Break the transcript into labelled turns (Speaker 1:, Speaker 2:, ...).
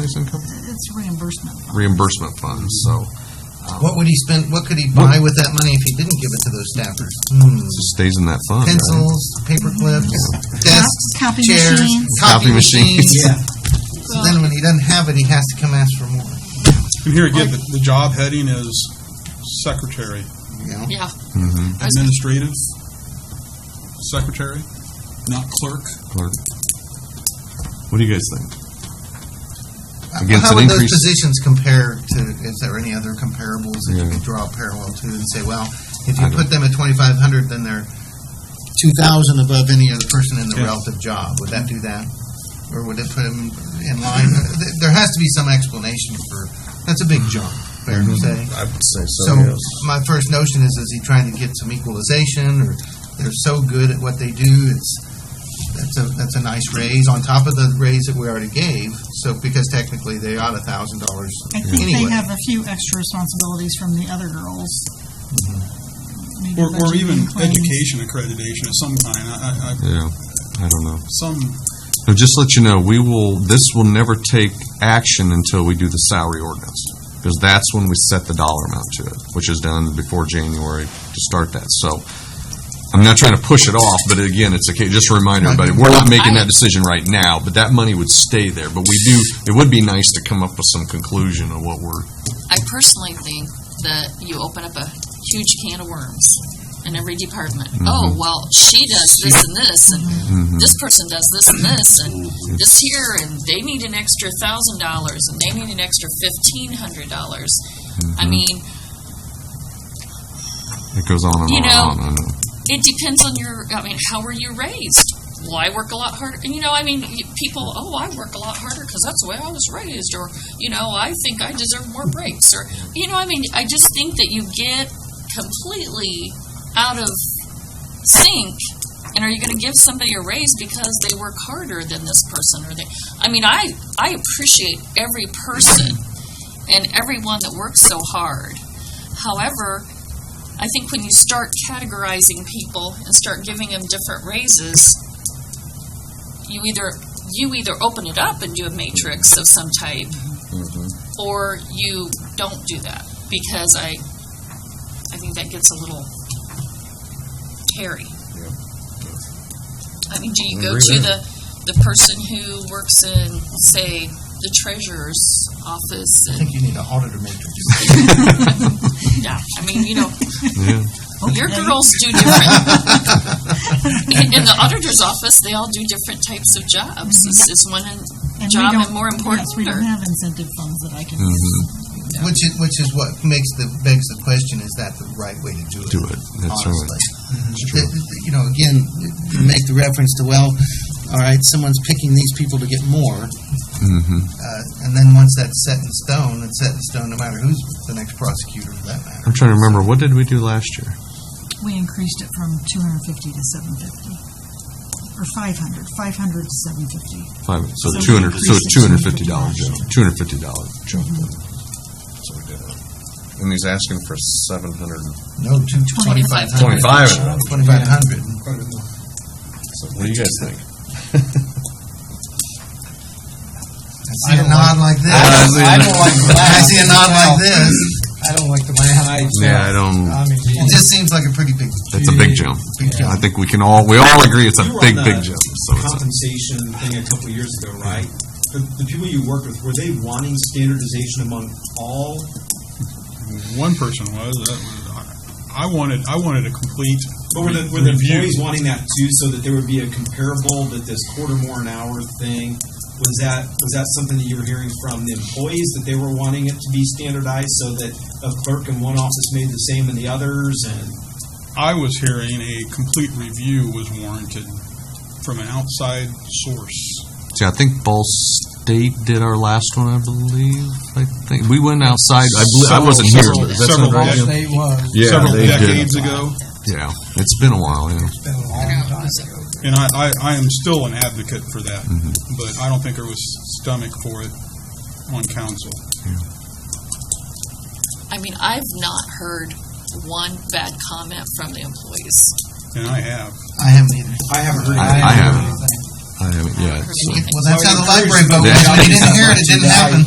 Speaker 1: tax income?
Speaker 2: It's reimbursement.
Speaker 1: Reimbursement funds, so
Speaker 3: What would he spend, what could he buy with that money if he didn't give it to those staffers? Hmm.
Speaker 1: it stays in that fund, right?
Speaker 3: Pencils, paper clips, desks,
Speaker 4: Copy
Speaker 3: chairs,
Speaker 4: machines.
Speaker 1: Copy
Speaker 3: copy
Speaker 1: machines.
Speaker 3: machines. So then when he doesn't have it, he has to come ask for more,
Speaker 5: And here again, the, the job heading is secretary,
Speaker 3: you know?
Speaker 2: Yeah.
Speaker 1: Mhm.
Speaker 2: I was-
Speaker 5: administrative, secretary, not clerk.
Speaker 1: Clerk. What do you guys think? Against
Speaker 3: Uh, How
Speaker 1: an
Speaker 3: would those
Speaker 1: increase-
Speaker 3: positions compare to, is there any other comparables that you
Speaker 1: Yeah.
Speaker 3: could draw a parallel to and say, well, if you
Speaker 1: I don't-
Speaker 3: put them at twenty-five hundred, then they're two thousand above any other person in the
Speaker 5: Yeah.
Speaker 3: relative job, would that do that? Or would it put them in line? Th- There has to be some explanation for, that's a big
Speaker 1: Mm-hmm.
Speaker 3: jump, fair to say.
Speaker 1: I would say
Speaker 3: So my first notion is, is he trying to get some equalization, or they're so good at what they do, it's, that's a, that's a nice raise on top of the raise that we already gave, so, because technically they ought a thousand dollars
Speaker 4: I think they
Speaker 3: anyway.
Speaker 4: have a few extra responsibilities from the other girls. Maybe
Speaker 5: Mm-hmm. Or, or
Speaker 4: budgeting
Speaker 5: even
Speaker 4: claims.
Speaker 5: education accreditation of some kind. I, I, I,
Speaker 1: Yeah, I don't know.
Speaker 5: some,
Speaker 1: So just to let you know, we will, this will never take action until we do the salary ordinance, because that's when we set the dollar amount to it, which is done before January to start that. So I'm not trying to push it off, but again, it's okay, just to remind everybody, we're not making that decision right now, but that money would stay there. But we do, it would be nice to come up with some conclusion of what we're,
Speaker 2: I personally think that you open up a huge can of worms in every department. Oh, well, she does this and this, and this person does this and this, and this here, and they need an extra thousand dollars, and they need an extra fifteen hundred dollars. I mean,
Speaker 1: it goes on and
Speaker 2: You
Speaker 1: on and
Speaker 2: know,
Speaker 1: on. I know.
Speaker 2: it depends on your. I mean, how were you raised? Well, I work a lot harder. You know, I mean, you- people. Oh, I work a lot harder because that's the way I was raised, or you know, I think I deserve more breaks, or you know, I mean, I just think that you get completely out of sync. And are you going to give somebody a raise because they work harder than this person, or they? I mean, I I appreciate every person and everyone that works so hard. However, I think when you start categorizing people and start giving them different raises, you either you either open it up and do a matrix of some type, or you don't do that because I I think that gets a little hairy. I mean, do you go to the the person who works in say the treasurer's office
Speaker 3: I
Speaker 2: and
Speaker 3: think you need an auditor matrix.
Speaker 2: yeah, I mean, you know,
Speaker 1: Yeah.
Speaker 2: your girls do different. in, in the auditor's office, they all do different types of jobs. Is, is one
Speaker 4: And
Speaker 2: in,
Speaker 4: we
Speaker 2: job
Speaker 4: don't-
Speaker 2: and more important,
Speaker 4: Yes, we
Speaker 2: or-
Speaker 4: don't have incentive funds that I can
Speaker 1: Mhm.
Speaker 5: Mm-hmm.
Speaker 4: use.
Speaker 3: Which is, which is what makes the, begs the question, is that the right way to do it?
Speaker 1: Do it. That's right.
Speaker 3: honestly. Th- th- You know, again, you make the reference to, well, all right, someone's picking these people to get more,
Speaker 1: Mm-hmm.
Speaker 3: uh, and then once that's set in stone, it's set in stone no matter who's the next prosecutor for that matter.
Speaker 1: I'm trying to remember, what did we do last year?
Speaker 4: We increased it from two hundred and fifty to seven fifty. Or five hundred, five hundred to seven fifty.
Speaker 1: Five, so
Speaker 4: So we
Speaker 1: two hundred, so
Speaker 4: increased
Speaker 1: two
Speaker 4: it
Speaker 1: hundred
Speaker 4: to
Speaker 1: fifty dollar
Speaker 4: $250.
Speaker 1: jump, two hundred fifty dollar jump. So we did it. And he's asking for seven hundred,
Speaker 3: No, two, twenty-five hundred.
Speaker 1: 25.
Speaker 3: Twenty-five hundred.
Speaker 1: so what do you guys think?
Speaker 3: I see a nod like this.
Speaker 1: I see it. I don't
Speaker 3: like I see a nod like this.
Speaker 6: I don't like the laugh.
Speaker 1: Yeah, I don't,
Speaker 6: I mean,
Speaker 3: It just seems like a pretty big,
Speaker 1: that's a big jump.
Speaker 3: big
Speaker 1: I
Speaker 3: jump.
Speaker 1: think we can all, we all agree it's a
Speaker 6: You were on
Speaker 1: big,
Speaker 6: the
Speaker 1: big jump, so it's, a-
Speaker 6: compensation thing a couple of years ago, right? The, the people you worked with, were they wanting standardization among all?
Speaker 5: one person was, that was, I, I wanted, I wanted a complete
Speaker 6: But were the, were the
Speaker 5: review.
Speaker 6: employees wanting that too, so that there would be a comparable, that this quarter more an hour thing? Was that, was that something that you were hearing from the employees, that they were wanting it to be standardized so that a clerk in one office made the same in the others and?
Speaker 5: I was hearing a complete review was warranted from an outside source.
Speaker 1: see, I think Ball State did our last one, I believe, I think, we went outside, I believe, I wasn't here.
Speaker 5: Several-
Speaker 1: but does that
Speaker 5: several-
Speaker 1: sound right?
Speaker 5: several
Speaker 6: They was.
Speaker 1: Yeah,
Speaker 5: several
Speaker 1: they did.
Speaker 5: decades ago.
Speaker 1: Yeah, it's been a while, yeah.
Speaker 5: And I, I, I am still an advocate for that,
Speaker 1: Mm-hmm.
Speaker 5: but I don't think there was stomach for it on council.
Speaker 2: I mean, I've not heard one bad comment from the employees.
Speaker 5: And I have.
Speaker 3: I haven't either.
Speaker 6: I haven't heard.
Speaker 1: I
Speaker 6: anything.
Speaker 1: haven't. I haven't, yeah,
Speaker 2: Heard
Speaker 1: so.
Speaker 2: anything.
Speaker 3: Well, that's how the library vote
Speaker 1: Yeah.
Speaker 3: went. We didn't hear it, it didn't happen.